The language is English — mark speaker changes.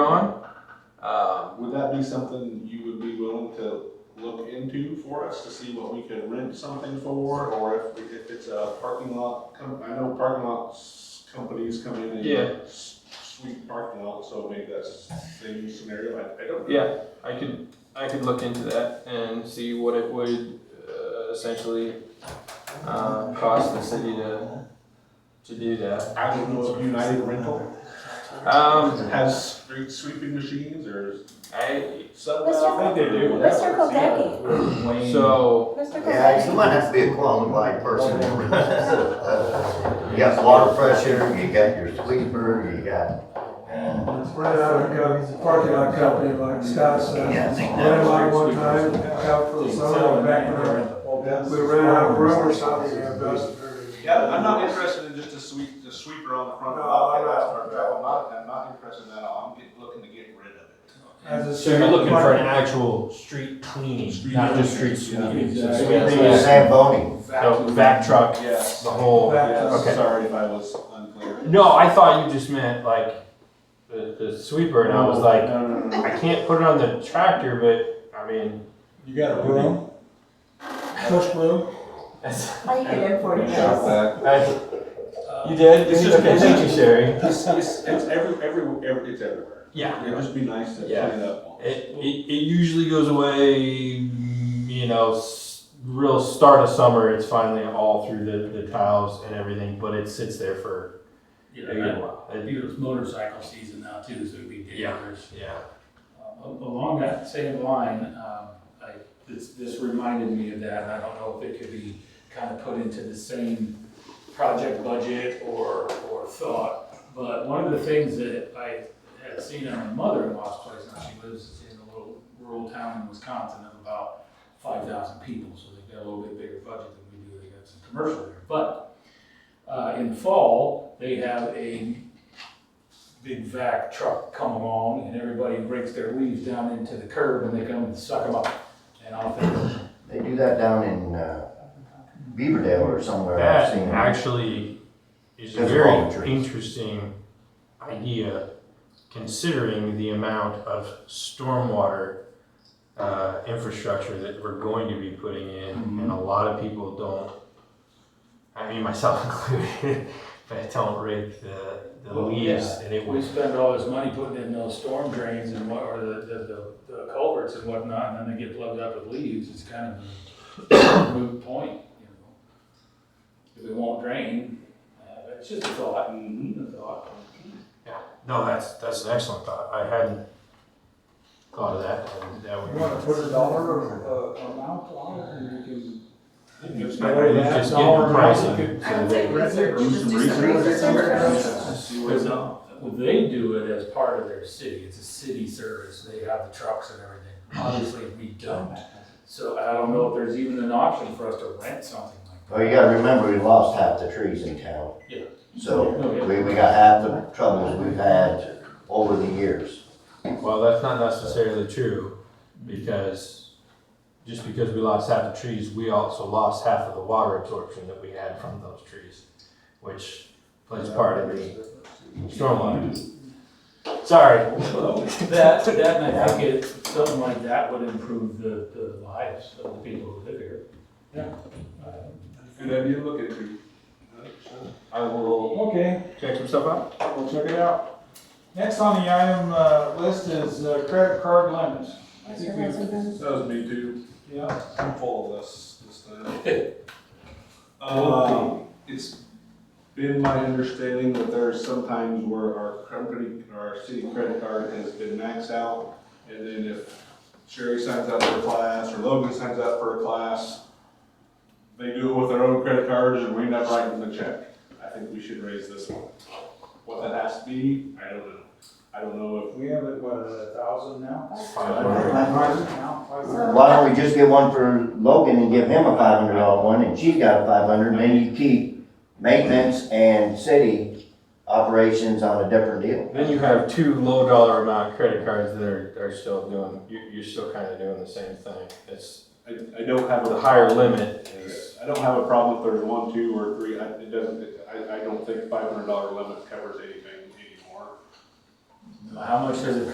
Speaker 1: on. Um,
Speaker 2: Would that be something you would be willing to look into for us to see what we could rent something for? Or if, we- if it's a parking lot, com- I know parking lots companies come in and
Speaker 1: Yeah.
Speaker 2: s- sweep parking lots, so maybe that's the same scenario, I, I don't know.
Speaker 1: yeah, I could, I could look into that and see what it would uh, essentially uh, cost the city to, to do that.
Speaker 2: I don't know if United Rental
Speaker 1: Um,
Speaker 2: has street sweeping machines or
Speaker 1: I,
Speaker 2: something.
Speaker 3: Mr.
Speaker 2: I think they do.
Speaker 3: Mr. Kopecky,
Speaker 1: so,
Speaker 3: Mr.
Speaker 4: Yeah, you
Speaker 3: Kopecky,
Speaker 4: might have to be a qualified person. to run this. You got water pressure, you got your sweeper, you got, uh,
Speaker 5: Right out of the parking lot company, like Scott said.
Speaker 4: Yeah, I think
Speaker 5: Ran
Speaker 4: that's-
Speaker 5: out one time, out for the summer, back when I- we ran out of room or something, yeah, best.
Speaker 2: Yeah, I'm not interested in just a sweep, a sweeper on the front of the
Speaker 5: No,
Speaker 2: lot,
Speaker 5: I'm
Speaker 2: that's
Speaker 5: not.
Speaker 2: our job, I'm not, I'm not interested in that, at all. I'm get- looking to get rid of it.
Speaker 5: As a-
Speaker 6: So you're looking for an actual street cleaning, not just street
Speaker 2: Street
Speaker 6: sweeping.
Speaker 2: cleaning,
Speaker 6: So
Speaker 2: exactly.
Speaker 6: we have
Speaker 4: maybe a
Speaker 6: to-
Speaker 4: Zamboni.
Speaker 6: No, vac truck,
Speaker 2: Yes.
Speaker 6: the whole.
Speaker 5: Back to-
Speaker 2: Yes,
Speaker 6: Okay.
Speaker 2: sorry if I was unclear.
Speaker 1: no, I thought you just meant like the, the sweeper and I was like,
Speaker 2: No, no, no, no.
Speaker 1: I can't put it on the tractor, but I mean,
Speaker 5: You got a broom? Push broom?
Speaker 1: that's,
Speaker 3: I can afford this.
Speaker 1: you did?
Speaker 2: It's just-
Speaker 1: Okay, thank you, Sherry.
Speaker 2: It's, it's, it's every, every, every, it's everywhere.
Speaker 1: Yeah.
Speaker 2: It'd just be nice to clean
Speaker 1: Yeah.
Speaker 2: it up. once.
Speaker 1: It, it, it usually goes away, mm, you know, s- real start of summer. It's finally all through the, the tiles and everything, but it sits there for
Speaker 7: You
Speaker 1: a
Speaker 7: know,
Speaker 1: good
Speaker 7: that-
Speaker 1: while.
Speaker 7: I
Speaker 1: It-
Speaker 7: think it's motorcycle season now too, so it'd be dangerous.
Speaker 1: yeah.
Speaker 7: Uh, Along that same line, um, I, this, this reminded me of that, and I don't know if it could be kind of put into the same project budget or, or thought. But one of the things that I had seen on my mother-in-law's place, now she lives in a little rural town in Wisconsin of about five thousand people, so they've got a little bit bigger budget than we do, they got some commercial there. But, uh, in the fall, they have a big vac truck come along and everybody rakes their leaves down into the curb and they come and suck them up. And I'll think,
Speaker 4: They do that down in, uh, Beaverdale or somewhere I've
Speaker 1: That
Speaker 4: seen.
Speaker 1: actually is a
Speaker 4: That's
Speaker 1: very
Speaker 4: voluntary.
Speaker 1: interesting idea, considering the amount of stormwater uh, infrastructure that we're going to be putting in,
Speaker 4: Mm-hmm.
Speaker 1: and a lot of people don't. I mean, myself included, but don't rake the, the
Speaker 7: Well,
Speaker 1: leaves, and it
Speaker 7: we
Speaker 1: was
Speaker 7: spend all this money putting in those storm drains and what, or the, the, the- the culverts and whatnot, and then they get plugged up with leaves, it's kind of a moot point, you know? If it won't drain, uh, it's just a thought, a thought.
Speaker 1: no, that's that's an excellent thought. I hadn't thought of that, and that would.
Speaker 5: You wanna put a dollar, uh, amount on it, and you can.
Speaker 2: Just
Speaker 5: Yeah.
Speaker 2: get rid of
Speaker 1: Just
Speaker 2: that.
Speaker 1: get the pricing.
Speaker 8: I would say research,
Speaker 2: Do
Speaker 8: just
Speaker 2: some
Speaker 8: do some research.
Speaker 2: See what
Speaker 7: Because
Speaker 2: it's
Speaker 7: uh, they do it as part of their city, it's a city service, they have the trucks and everything, obviously we don't. So I don't know if there's even an option for us to rent something like
Speaker 4: Well, you gotta remember, we lost half the trees in town.
Speaker 7: Yeah.
Speaker 4: So,
Speaker 7: Yeah.
Speaker 4: we, we got half the troubles we've had over the years.
Speaker 1: Well, that's not necessarily true, because just because we lost half the trees, we also lost half of the water absorption that we had from those trees, which plays part in the stormwater. Sorry.
Speaker 7: that. That, that, and I think it, something like that would improve the, the lives of the people who live here. Yeah.
Speaker 2: Good idea, look at it.
Speaker 1: I will
Speaker 5: Okay,
Speaker 1: check some stuff out.
Speaker 5: we'll check it out. Next on the item, uh, list is uh, credit card limits. I think
Speaker 3: Mr.
Speaker 5: we-
Speaker 3: Rosenbaum.
Speaker 2: That was me too,
Speaker 5: Yeah.
Speaker 2: I'm full of this, this time. Um, it's been my understanding that there's sometimes where our company, our city credit card has been maxed out. And then if Sherry signs up for a class or Logan signs up for a class, they do it with their own credit cards and we end up writing the check. I think we should raise this one. What that has to be, I don't know. I don't know if
Speaker 5: We have it, what, a thousand now?
Speaker 3: So-
Speaker 4: Why don't we just get one for Logan and give him a five hundred dollar one, and she's got a five hundred, then you keep maintenance and city operations on a different deal.
Speaker 1: Then you have two low dollar amount credit cards that are, are still doing, you, you're still kind of doing the same thing. It's
Speaker 2: I, I don't have
Speaker 1: the
Speaker 2: a.
Speaker 1: higher limit is,
Speaker 2: I don't have a problem if there's one, two, or three, I, it doesn't, I, I don't think five hundred dollar limit covers anything anymore.
Speaker 7: How much does it